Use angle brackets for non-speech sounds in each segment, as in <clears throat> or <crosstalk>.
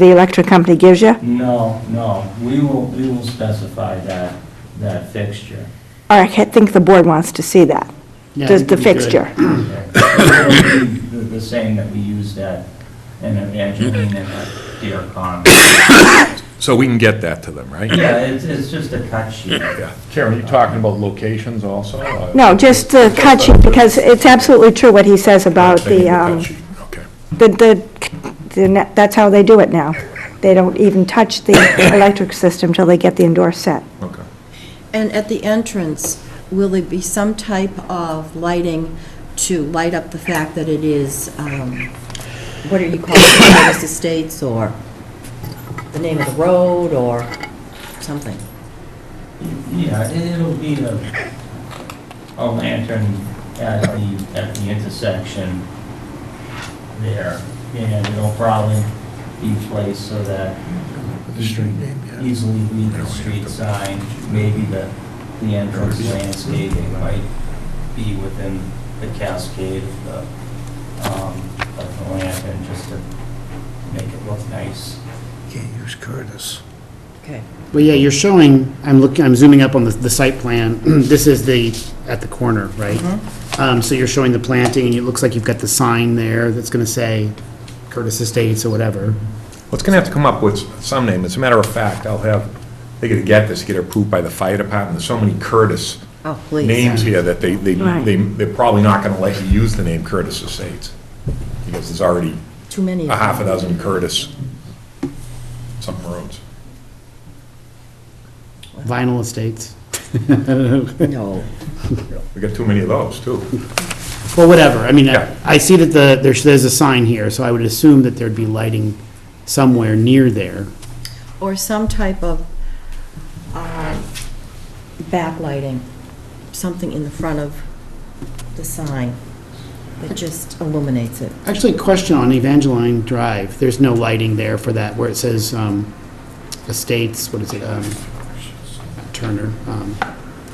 the electric company gives you? No, no, we will, we will specify that, that fixture. Or I think the board wants to see that, Yeah, I just the think it'd be good. fixture. Okay. It'll be The the same that we used at, in Evangeline and at Deer Pond. So we can get that to them, right? Yeah, it's, it's just a cut sheet. Karen, are you talking about locations also? Uh, No, just the cut sheet, because it's absolutely true what he says about They need the, um, cut sheet. Okay. the, the- the, ne- that's how they do it now. They don't even touch the electric system till they get the endorsed set. Okay. And at the entrance, will there be some type of lighting to light up the fact that it is, um, what are you calling it, Curtis Estates, or the name of the road, or something? Yeah, it'll be a, a lantern at the, at the intersection there, and it'll probably be placed so that The street name, yeah. easily read the street sign, maybe the, the entrance landscaping might be within the cascade of the, um, of the lantern, just to make it look nice. Can't use Curtis. Okay. Well, yeah, you're showing, I'm looking, I'm zooming up on the, the site plan. <clears throat> This is the, at the corner, right? Um, so you're showing the planting, and it looks like you've got the sign there that's gonna say Curtis Estates or whatever. Well, it's going to have to come up with some name. As a matter of fact, I'll have, they got to get this, get it approved by the fire department. There's so many Curtis Oh, please. names here that they, they, Right. they- they're probably not going to let you use the name Curtis Estates, because there's already Too many. a half a dozen Curtis something roads. Vinyl Estates. <laughs> I don't know. No. We got too many of those, too. Well, whatever, I mean, Yeah. I I see that the, there's, there's a sign here, so I would assume that there'd be lighting somewhere near there. Or some type of um, backlighting, something in the front of the sign that just illuminates it. Actually, question on Evangeline Drive, there's no lighting there for that, where it says um, Estates, what is it, um, Turner, um,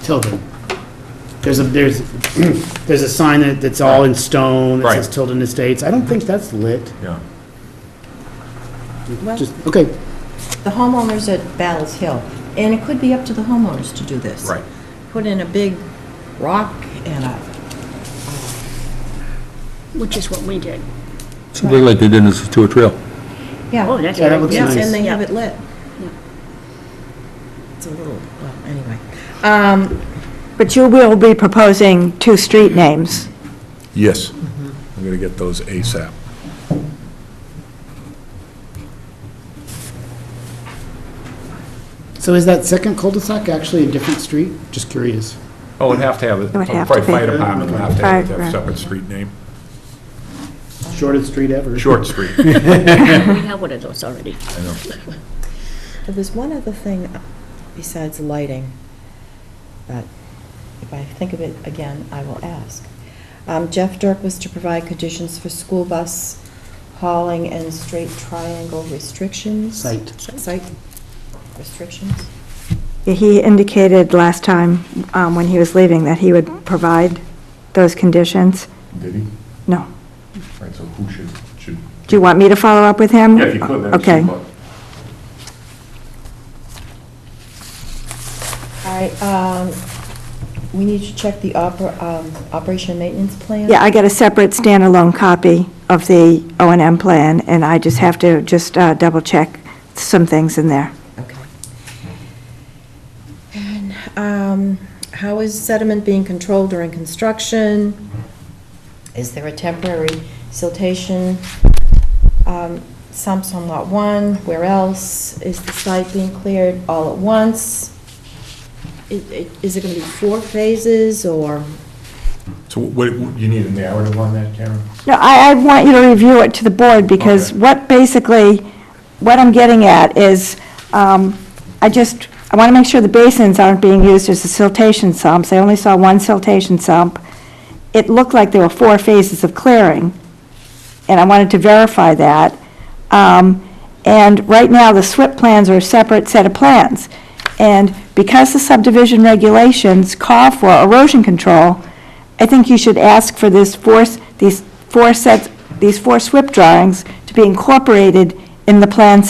Tilden. There's a, there's, <clears throat> there's a sign that, that's all in stone, that says Right. Tilden Estates, I don't think that's lit, Yeah. Well, just, okay, the homeowners at Battles Hill, and it could be up to the homeowners to do this. Right. Put in a big rock and a, which is what we did. Something like they did in Situate Trail. Oh, yeah, that's Yeah, that looks yes, nice. and they have it lit. It's a little, well, anyway. Um, But you will be proposing two street names. Yes. Mm-hmm. I'm going to get those ASAP. so is that second cul-de-sac actually a different street? Just curious. Oh, it'd have to have, it. It would have to probably be. fire department would have to have Fire, a right. separate street name. Shortest street ever. Short Street. We have one of those already. I know. There was one other thing besides lighting, but if I think of it again, I will ask. Um, Jeff Dirk was to provide conditions for school bus hauling and straight triangle restrictions. Site. Site restrictions. He indicated last time, um, when he was leaving, that he would provide those conditions. Did he? No. Right, so who should, should? Do you want me to follow up with him? Yeah, if you could, that'd be Okay. super. All right, um, we need to check the oper, um, operation and maintenance plan. Yeah, I got a separate standalone copy of the O and M plan, and I just have to just uh, double-check some things in there. Okay. And, um, how is sediment being controlled during construction? Is there a temporary siltation, um, sumps on lot one? Where else? Is the site being cleared all at once? Is, is it gonna be four phases, or? So what, you need a narrative on that, Karen? No, I, I want you to review it to the board, because Okay. what basically, what I'm getting at is, um, I just, I want to make sure the basins aren't being used as the siltation sumps. I only saw one siltation sump. It looked like there were four phases of clearing, and I wanted to verify that. Um, And right now, the SWIP plans are a separate set of plans. And because the subdivision regulations call for erosion control, I think you should ask for this four, these four sets, these four SWIP drawings to be incorporated in the plan